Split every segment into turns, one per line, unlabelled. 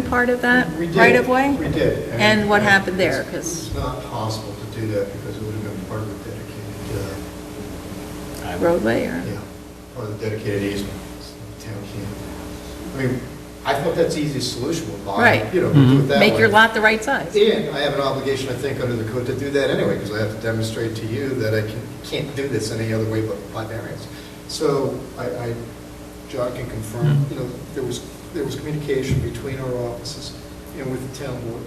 part of that
We did.
right of way?
We did.
And what happened
it's-
there? 'Cause-
It's not possible to do that because it would have been part of the dedicated,
Roadway
uh,
or?
yeah, part of the dedicated easement. So Town can't. I mean, I thought that's the easiest solution, we'll buy,
Right. Mm-hmm.
you know, do it that way.
Make your lot the right size.
And I have an obligation, I think, under the code to do that anyway, because I have to demonstrate to you that I can- can't do this any other way but by variance. So I, I, John can
Mm-hmm.
confirm, you know, there was, there was communication between our offices and with the town board.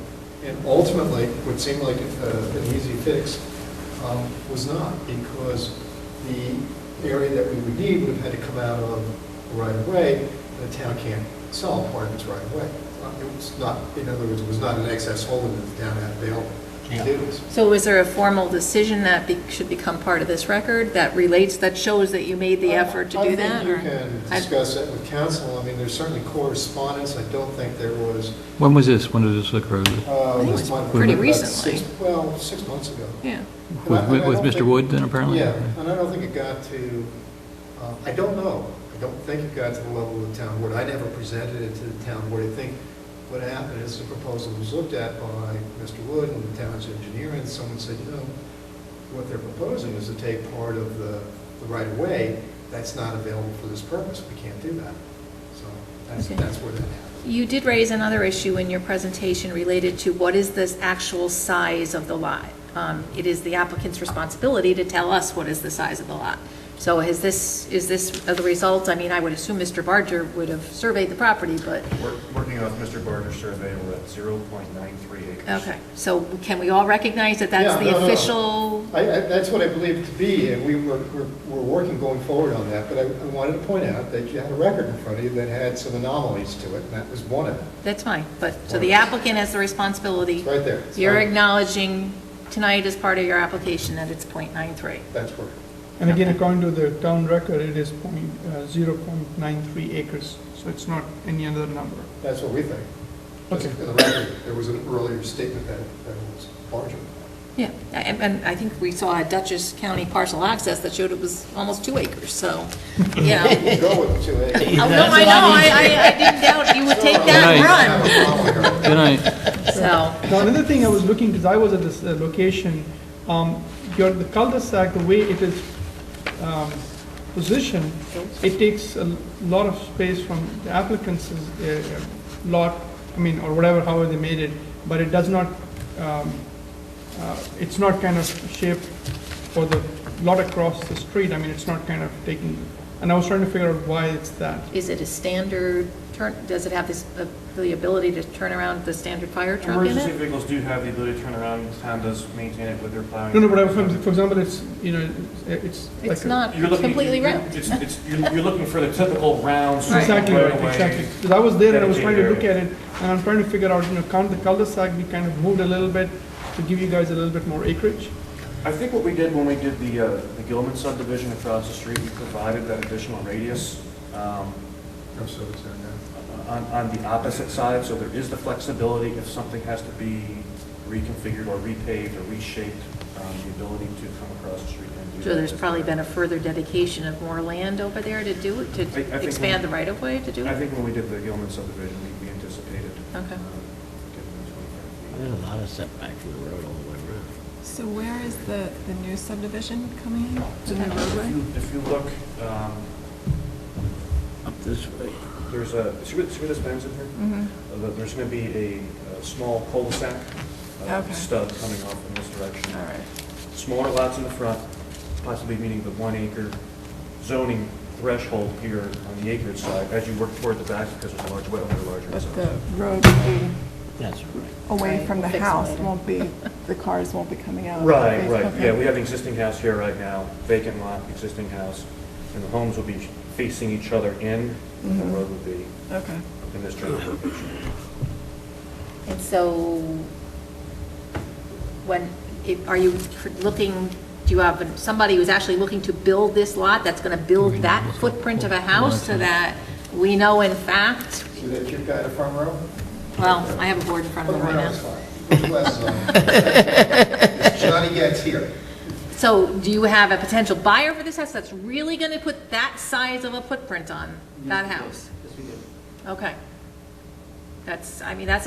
And ultimately, what seemed like uh, an easy fix um, was not, because the area that we would need would have had to come out of right of way, and the town can't sell part of its right of way. Uh, It was not, in other words, it was not an excess holding that the town had available to do this.
So is there a formal decision that be- should become part of this record that relates, that shows that you made the effort to
I-
do that?
I
or-
think Oh, you can
I-
discuss that with council, I mean, there's certainly correspondence, I don't think there was,
When was this? When did this occur?
I
uh,
think it
this
was
one-
pretty
about
recently.
six- Well, six months ago.
Yeah.
And I-
With,
and I
with
don't
Mr.
think-
Wood then apparently?
Yeah, and I don't think it got to, uh, I don't know, I don't think it got to the level of the town board, I never presented it to the town board, I think what happened is the proposal was looked at by Mr. Wood and the town's engineer, and someone said, you know, what they're proposing is to take part of the, the right of way, that's not available for this purpose, we can't do that. So that's,
Okay.
that's where that happened.
You did raise another issue in your presentation related to what is this actual size of the lot? Um, It is the applicant's responsibility to tell us what is the size of the lot. So is this, is this the result? I mean, I would assume Mr. Barger would have surveyed the property, but,
We're Working off Mr. Barter's survey, we're at 0.93 acres.
okay. So can we all recognize that that's
Yeah,
the
no, no, no.
official?
I, I, that's what I believe it to be, and we were, we're, we're working going forward on that, but I, I wanted to point out that you had a record in front of you that had some anomalies to it, and that was one of them.
That's fine, but, so the applicant has the responsibility.
It's right there. It's
You're
right-
acknowledging tonight as part of your application that it's .93.
That's where,
And again, according to the town record, it is point, uh, zero point nine three acres, so it's not any other number.
that's what we think.
Okay.
In the record, there was an earlier statement that, that was larger.
Yeah, and, and I think we saw a Dutchess County parcel access that showed it was almost two acres, so, you know.
Go with two acres.
Oh, No, I know, I, I- I didn't doubt you would take that and
I have a problem here.
Good night.
run, so.
Now, another thing I was looking, because I was at this uh, location, um, your, the cul-de-sac, the way it is, um, positioned, it takes a lot of space from the applicant's, uh, lot, I mean, or whatever, however they made it, but it does not, um, uh, it's not kind of shaped for the lot across the street, I mean, it's not kind of taking, and I was trying to figure out why it's that.
Is it a standard turn, does it have this, uh, the ability to turn around the standard fire truck in
Emergency
it?
vehicles do have the ability to turn around, town does maintain it with their plowing.
No, no, but I, for for example, it's, you know, it's. like
It's
a-
not
You're looking-
completely
you're-
round.
It's, it's, you're you're looking for the typical round. sort of
Exactly,
right
right,
away.
exactly. Because I was there and I was trying to look at
Dedicated
it, and I'm trying to figure out, you know, count the cul-de-sac, we kind of moved a little bit to give you guys a little bit more acreage.
I think what we did when we did the, uh, the Gilman subdivision across the street, we provided that additional radius um,
No, Oh, so it's there now.
on, on the opposite side, so there is the flexibility if something has to be reconfigured or repaved or reshaped, um, the ability to come across the street and do that.
So there's probably been a further dedication of more land over there to do, it
I- I think
to
when-
expand the right of way to do
I
it?
think when we did the Gilman subdivision, we- we anticipated.
Okay.
um, giving them 25 feet.
There's a lot of setback from the road all the way around.
So where is the, the new subdivision coming in? The new roadway?
If you- If you look, um,
Up this way.
there's a, see where see where this bends in here?
Mm-hmm.
Mhm.
Uh, there- There's going to be a uh, small cul-de-sac uh,
Okay.
stub coming off in this
All
direction.
right.
Smaller lots in the front, possibly meeting the one acre zoning threshold here on the acreage side as you work toward the back because there's a large wetland, larger.
But
zone.
the roadway
That's right.
away from the
Right, we'll fix it
house
later.
won't be, the cars won't be coming out.
Right,
Okay,
right,
okay.
yeah, we have an existing house here right now, vacant lot, existing house, and the homes will be facing each other in, and the road will be
Okay.
in this general location.
And so, when, if- are you tr- looking, do you have somebody who's actually looking to build this lot that's going to build that footprint of a house so that we know in fact,
See that cute guy in the front row?
well, I have a board in front of
Front
them right
row is
now.
fine. Put your glasses on. It's Johnny Gets here.
So do you have a potential buyer for this house that's really going to put that size of a footprint on that house? Yes, we do. Okay. That's, I mean, that's